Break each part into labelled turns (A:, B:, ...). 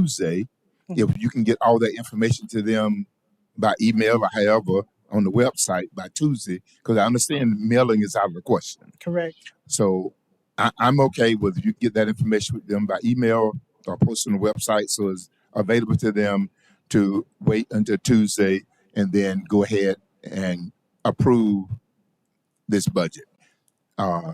A: Tuesday. If you can get all that information to them by email or however on the website by Tuesday, because I understand mailing is out of the question.
B: Correct.
A: So I, I'm okay with you get that information with them by email or post on the website so it's available to them to wait until Tuesday and then go ahead and approve this budget uh,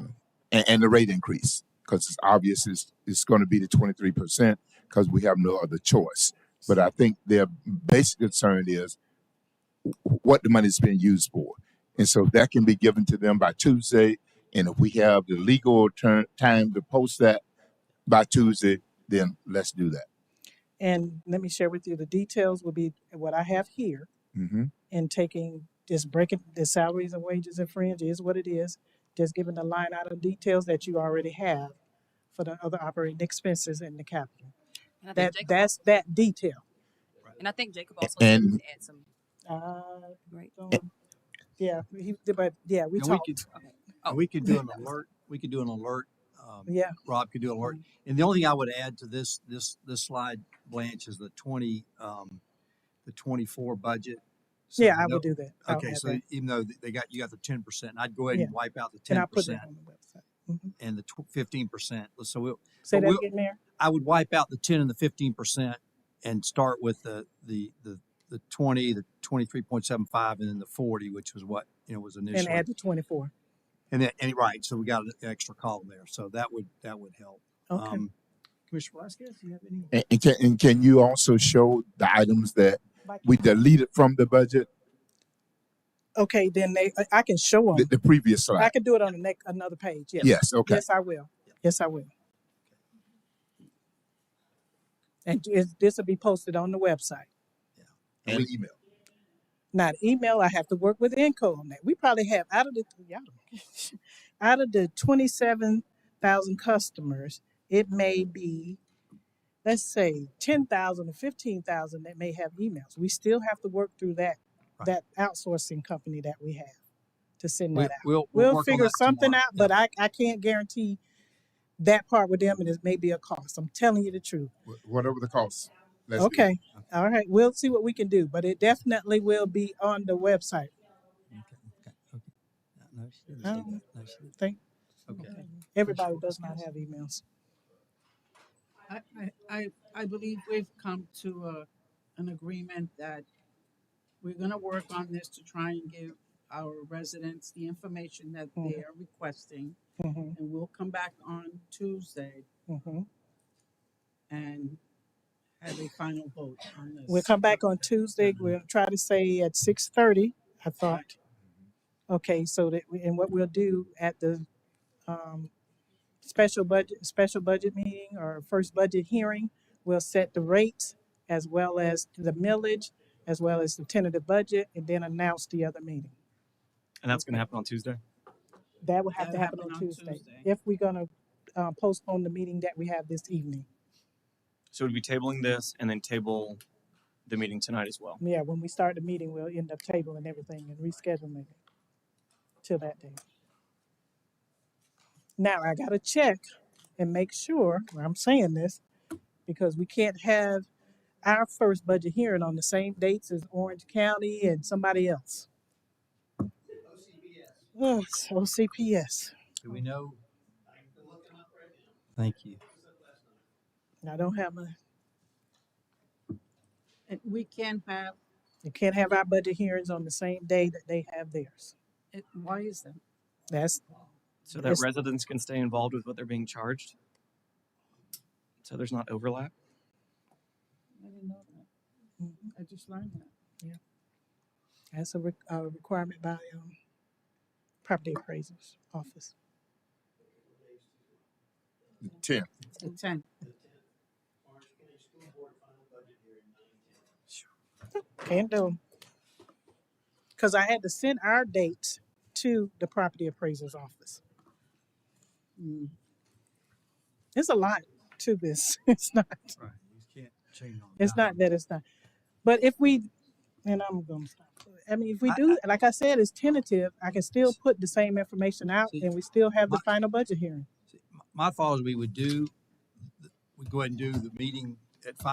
A: and, and the rate increase because it's obvious it's, it's going to be the 23% because we have no other choice. But I think their basic concern is what the money is being used for. And so that can be given to them by Tuesday. And if we have the legal turn, time to post that by Tuesday, then let's do that.
B: And let me share with you the details will be what I have here
A: hmm
B: in taking just breaking the salaries and wages and fringe is what it is. Just giving the line item details that you already have for the other operating expenses and the capital.
C: And I think
B: That
C: Jacob,
B: that's that detail.
C: and I think Jacob also said we
A: And
C: could add some,
B: Uh,
C: right?
B: don't- yeah, he, but yeah, we
D: And we could,
B: talked.
C: Okay.
D: and
C: Oh,
D: we could do an
C: that was,
D: alert, we could do an alert, um,
B: Yeah.
D: Rob could do an alert.
B: Mhm.
D: And the only thing I would add to this, this, this slide, Blanche, is the twenty, um, the twenty-four budget. So
B: Yeah, I
D: no,
B: will do that. I'll
D: okay,
B: add
D: so
B: that.
D: even though th- they got, you got the ten percent, I'd go ahead
B: Yeah.
D: and wipe out the
B: And
D: ten
B: I'll put that
D: percent
B: on the website. hmm
D: and the fifteen percent. So we'll,
B: Say
D: but
B: that
D: we'll,
B: again, Mayor?
D: I would wipe out the ten and the fifteen percent and start with the, the, the, the twenty, the twenty-three point seven five, and then the forty, which was what, you know, was
B: And
D: initially.
B: add the twenty-four.
D: And then, and right, so we got an extra column there, so that would, that would help.
B: Okay.
D: Um, Commissioner Velasquez, do you have any?
A: and, and, can, and can you also show the items that
B: Like-
A: we deleted from the budget,
B: Okay, then they, I I can show
A: the,
B: them.
A: the previous slide?
B: I can do it on the next, another page. Yes.
A: Yes, okay.
B: Yes, I will. Yes, I will. And is- this will be posted on the website.
D: Yeah. And
A: And
D: we,
A: email.
B: Now, the email, I have to work with Enco on that. We probably have out of the, y'all don't- out of the twenty-seven thousand customers, it may be, let's say, ten thousand or fifteen thousand that may have emails. We still have to work through that,
D: right,
B: that outsourcing company that we have to send
D: we,
B: that out.
D: we'll, we'll
B: uh, We'll
D: work on
B: figure
D: that
B: something
D: tomorrow.
B: out,
D: Yeah,
B: but I, I can't guarantee that part with them and it may be a cost. I'm telling you the truth.
A: Wh- Whatever the cost, let's do it.
B: Okay. All right. We'll see what we can do, but it definitely will be on the website.
D: okay, okay,
B: uh,
D: okay. No, no, she didn't
B: I
D: say
B: don't
D: that, no, she didn't.
B: think
D: Okay.
B: everybody does not have emails.
E: I, I, I I believe we've come to a, an agreement that we're gonna work on this to try and give our residents the information that they
B: Mhm,
E: are requesting.
B: mhm,
E: And we'll come back on Tuesday
B: mhm.
E: and have a final vote on
B: We'll
E: this.
B: come back on Tuesday. We'll try to say at six thirty, I thought. Okay, so that, we- and what we'll do at the, um, special budget, special budget meeting or first budget hearing. We'll set the rates as well as the millage, as well as the tentative budget, and then announce the other meeting.
F: And that's going to happen on Tuesday.
B: That will have to happen
E: That'll happen
B: on
E: on
B: Tuesday,
E: Tuesday.
B: if we're gonna, uh, postpone the meeting that we have this evening.
F: So we'd be tabling this and then table the meeting tonight as well.
B: Yeah, when we start the meeting, we'll end up tabling everything and rescheduling it till that day. Now, I gotta check and make sure, I'm saying this, because we can't have our first budget hearing on the same dates as Orange County and somebody else. Oh, Ugh, OCPS.
D: Do we know? Thank you.
B: And I don't have a,
E: And we can have,
B: you can't have our budget hearings on the same day that they have theirs.
E: it, why is that?
B: That's,
F: So that
B: it's,
F: residents can stay involved with what they're being charged. So there's not overlap.
E: I didn't know that.
B: Hmm.
E: I just learned that.
B: yeah, that's a, re- a requirement by, um, property appraisers office.
A: Ten.
E: It's the tenth.
B: Can't do 'em. um, Cause I had to send our dates to the property appraiser's office.
E: Mm.
B: There's a lot to this. It's not,
D: Right, you can't change on
B: it's not
D: dime.
B: that it's not. But if we, and I'm gonna stop. I mean, if we
D: I,
B: do, like I said, it's tentative, I can still put the same information out
D: See,
B: and we still have
D: my,
B: the final budget hearing.
D: see, my my thought is we would do, we go ahead and do the meeting at five